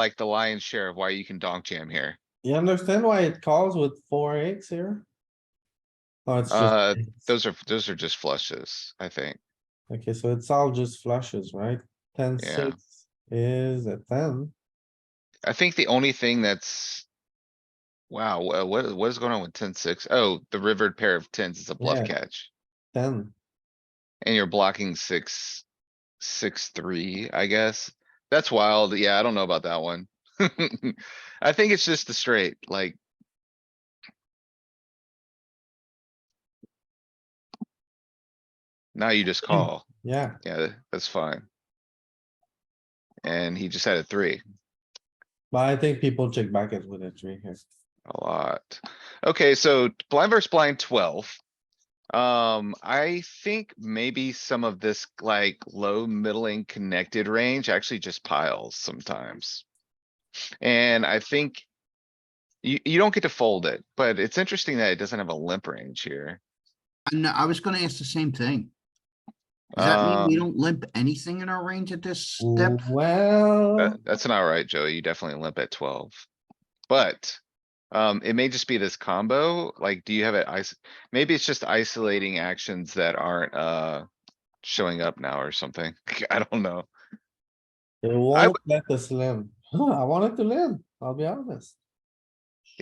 like the lion's share of why you can donk jam here. You understand why it calls with four eights here? Oh, it's Uh, just, Those are, those are just flushes, I think. okay, so it's all just flushes, right? Ten, Yeah. six is a ten. I think the only thing that's. Wow, wha- what, what is going on with ten six? Oh, the rivered pair of tens is a bluff Yeah. catch Ten. and you're blocking six, six, three, I guess. That's wild. Yeah, I don't know about that one. I think it's just the straight, like. Now you just call. yeah, Yeah, that's fine. And he just had a three. but I think people check back it with a three here. A lot. Okay, so blind versus blind twelve. Um, I think maybe some of this like low, middling, connected range actually just piles sometimes. And I think. You, you don't get to fold it, but it's interesting that it doesn't have a limp range here. And I was gonna ask the same thing. Does that mean we Um, don't limp anything in our range at this step? Well, That- Uh, that's not right, Joey. You definitely limp at twelve. But, um, it may just be this combo, like, do you have it ice, maybe it's just isolating actions that aren't, uh. Showing up now or something. I don't know. it won't let us limp. Huh, I wanted to limp, I'll be honest.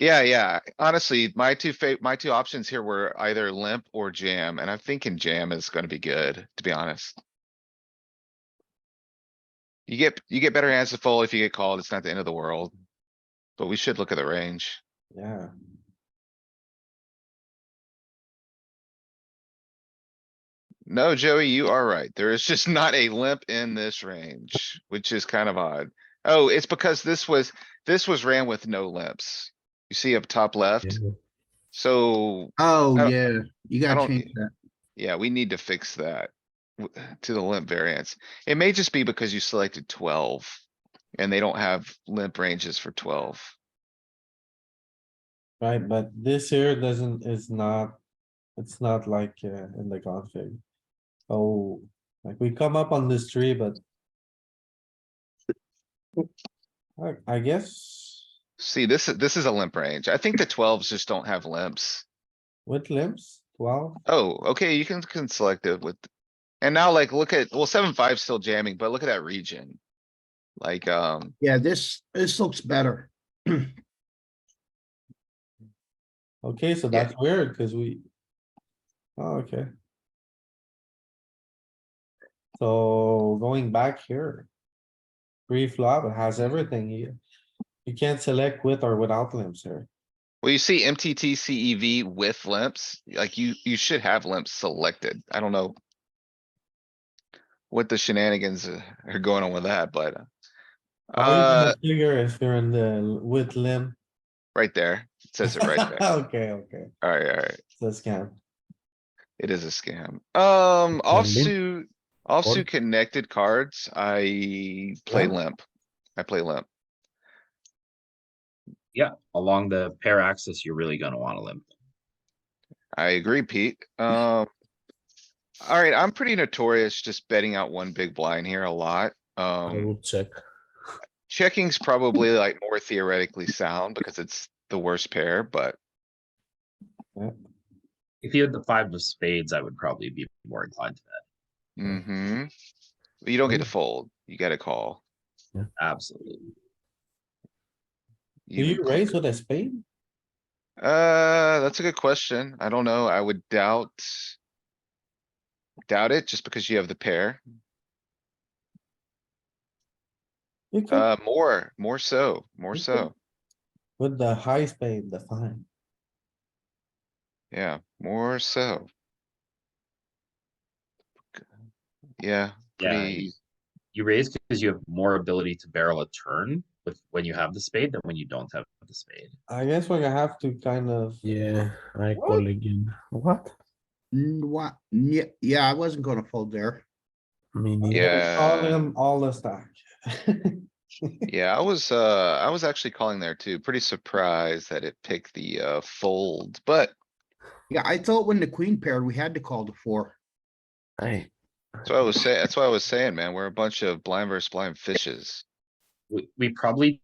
Yeah, yeah. Honestly, my two fa- my two options here were either limp or jam, and I'm thinking jam is gonna be good, to be honest. You get, you get better hands to fold if you get called. It's not the end of the world. But we should look at the range. Yeah, No, Joey, you are right. There is just not a limp in this range, which is kind of odd. Oh, it's because this was, this was ran with no limps. You see up top left? So, I Oh, don't- yeah, you gotta don't- e change that. yeah, we need to fix that w- to the limp variance. It may just be because you selected twelve and they don't have limp ranges for twelve. right, but this here doesn't, is not, it's not like uh, in the config. Oh, like we come up on this tree, but. I, I guess See, this is, this is a limp range. I think the twelves just don't have limps. with limps, twelve, Oh, okay, you can, can select it with, and now like, look at, well, seven, five still jamming, but look at that region. Like, um, Yeah, this, this looks better. okay, so Yeah. that's weird, cuz we. Oh, okay. So going back here. Pre-flop it has everything here. You can't select with or without limps here. well, you see MTT CEV E with limps, like you, you should have limps selected. I don't know. What the shenanigans uh, are going on with that, but. uh, Uh, Always gonna Figure if you're in the l- with limp. right there, it says it right there. Okay, okay, Alright, alright, that's scam. it is a scam. Um, offsuit, Fold. offsuit connected cards, I play Yeah. limp. I play limp. Yeah, along the pair axis, you're really gonna wanna limp. I agree, Pete. Um. Alright, I'm pretty notorious just betting out one big blind here a lot. Oh. Um, check. checking's probably like more theoretically sound because it's the worst pair, but If you had the five of spades, I would probably be more inclined to hmm You don't get to fold. You gotta call. that, absolutely. Do you would- raise with a spade? Uh, that's a good question. I don't know. I would doubt. Doubt it just because you have the pair. You could Uh, more, more so, more Okay. so. with the high spade, the fine. Yeah, more so. Yeah, Yeah, you- pretty, you raise because you have more ability to barrel a turn with, when you have the spade than when you don't have the spade. I guess we're gonna have to kind of, Yeah, I What? call again. What? Mm, What, yeah, yeah, I wasn't gonna fold there. Me neither. Yeah. call him all the stack. yeah, I was, uh, I was actually calling there too. Pretty surprised that it picked the, uh, fold, but. Yeah, I thought when the queen paired, we had to call the four. Hey, That's what I was saying, that's what I was saying, man. We're a bunch of blind versus blind fishes. we, we probably